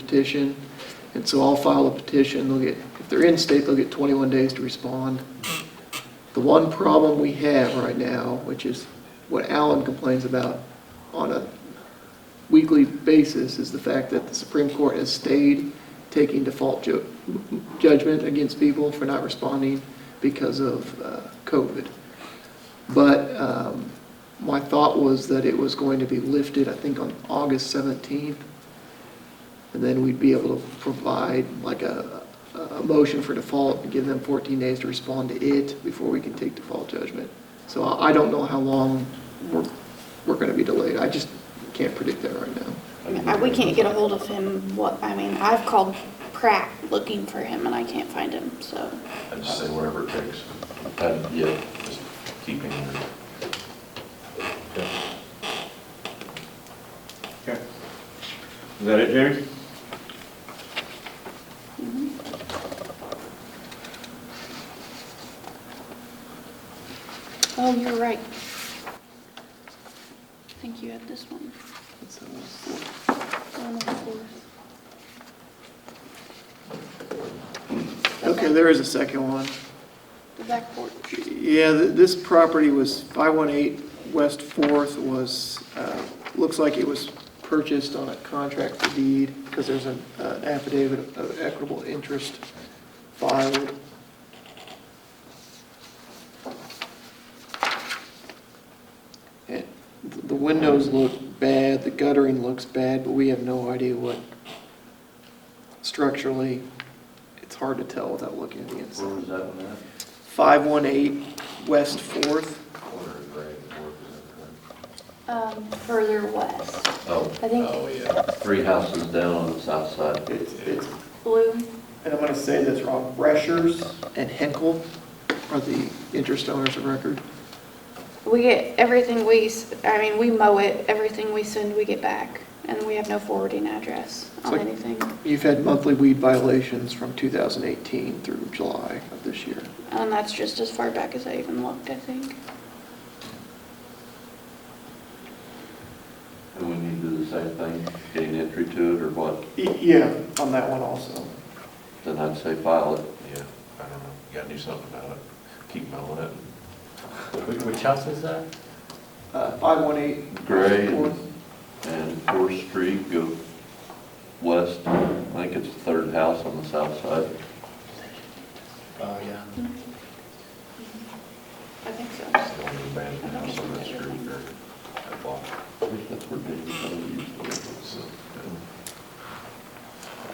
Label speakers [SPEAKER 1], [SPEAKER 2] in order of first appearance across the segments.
[SPEAKER 1] petition. And so I'll file a petition, they'll get, if they're in state, they'll get 21 days to respond. The one problem we have right now, which is what Alan complains about on a weekly basis, is the fact that the Supreme Court has stayed taking default ju- judgment against people for not responding because of uh, COVID. But um, my thought was that it was going to be lifted, I think, on August 17th. And then we'd be able to provide like a, a motion for default and give them 14 days to respond to it before we can take default judgment. So I I don't know how long we're, we're going to be delayed. I just can't predict that right now.
[SPEAKER 2] I mean, I- We can't get a hold of him, what, I mean, I've called Pratt looking for him and I can't find him, so.
[SPEAKER 3] I just say whatever it takes. And, yeah, just keep it here.
[SPEAKER 4] Okay. Is that it, Jamie?
[SPEAKER 2] Oh, you're right. I think you had this one.
[SPEAKER 1] That's how it's-
[SPEAKER 2] One of the fours.
[SPEAKER 1] Okay, there is a second one.
[SPEAKER 2] The back porch.
[SPEAKER 1] Yeah, th- this property was 518 West Fourth was, uh, looks like it was purchased on a contract for deed because there's an uh, affidavit of equitable interest filed. And th- The windows look bad, the guttering looks bad, but we have no idea what structurally, it's hard to tell without looking at the inside.
[SPEAKER 3] was that one at?
[SPEAKER 1] 518 West Fourth.
[SPEAKER 3] Corner of Gray and Fourth, is that correct?
[SPEAKER 2] Um, further west, I
[SPEAKER 3] Oh,
[SPEAKER 2] think-
[SPEAKER 3] oh, yeah. Three houses down on the south side.
[SPEAKER 1] It's, it's,
[SPEAKER 2] blue.
[SPEAKER 1] and I'm going to say this wrong, Reschers and Henkel are the interest owners of record.
[SPEAKER 2] We get everything we, s- I mean, we mow it, everything we send, we get back, and we have no forwarding address
[SPEAKER 1] It's
[SPEAKER 2] on
[SPEAKER 1] like-
[SPEAKER 2] anything.
[SPEAKER 1] You've had monthly weed violations from 2018 through July of this year.
[SPEAKER 2] And that's just as far back as I even looked, I think.
[SPEAKER 3] And we need to do the same thing, gain entry to it or what?
[SPEAKER 1] Yeah. On that one also.
[SPEAKER 3] Then I'd say file it.
[SPEAKER 5] Yeah, I don't know, you gotta do something about it, keep mowing it.
[SPEAKER 6] Which house is that?
[SPEAKER 1] Uh, 518.
[SPEAKER 3] Gray
[SPEAKER 1] Fourth.
[SPEAKER 3] and- and Fourth Street, go west. I think it's the third house on the south side.
[SPEAKER 6] Oh, yeah.
[SPEAKER 2] I think so.
[SPEAKER 5] It's the only abandoned house on that street or that block.
[SPEAKER 3] That's where David Kelly used to live.
[SPEAKER 5] So,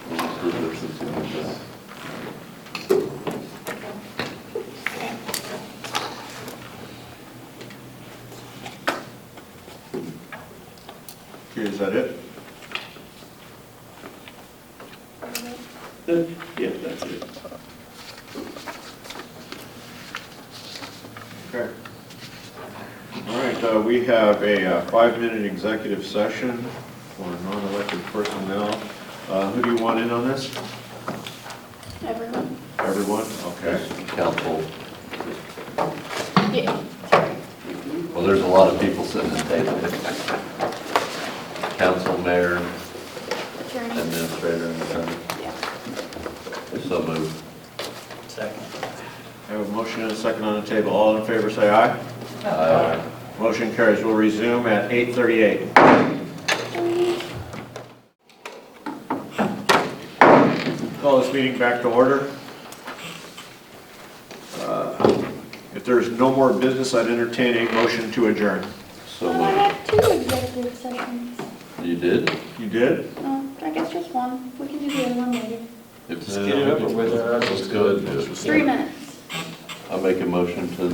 [SPEAKER 3] He's lived there since he was young.
[SPEAKER 4] Okay, is that it?
[SPEAKER 1] Uh, Yeah, that's it.
[SPEAKER 4] Okay. All right, uh, we have a uh, five-minute executive session for non-elected personnel. Uh, Who do you want in on this?
[SPEAKER 2] Everyone?
[SPEAKER 4] Everyone? Okay.
[SPEAKER 3] There's Council,
[SPEAKER 2] Yeah.
[SPEAKER 3] well, there's a lot of people sitting at the table. Council, mayor,
[SPEAKER 2] Attorney?
[SPEAKER 3] administrator, and attorney.
[SPEAKER 2] Yeah.
[SPEAKER 3] So moved.
[SPEAKER 6] Second.
[SPEAKER 4] I have a motion and a second on the table. All in favor, say aye. Aye. Motion carries. We'll resume at 8:38. Call this meeting back to order. Uh, If there's no more business, I'd entertain a motion to adjourn.
[SPEAKER 3] So
[SPEAKER 2] Well, I
[SPEAKER 3] moved.
[SPEAKER 2] had two executive sessions.
[SPEAKER 3] You did?
[SPEAKER 4] You did?
[SPEAKER 2] No, I guess just one. We can do the other one later.
[SPEAKER 3] If
[SPEAKER 5] Just get it over with. Let's go ahead and just.
[SPEAKER 2] Three minutes.
[SPEAKER 3] I make a motion to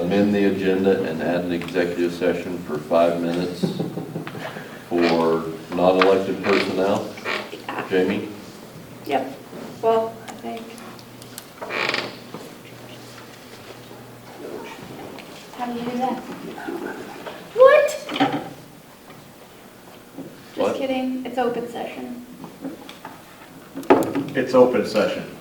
[SPEAKER 3] amend the agenda and add an executive session for five minutes for non-elected personnel. Jamie?
[SPEAKER 2] Yep. Well, I think. How do you do that? What?
[SPEAKER 3] What?
[SPEAKER 2] Just kidding. It's open session.
[SPEAKER 4] It's open session.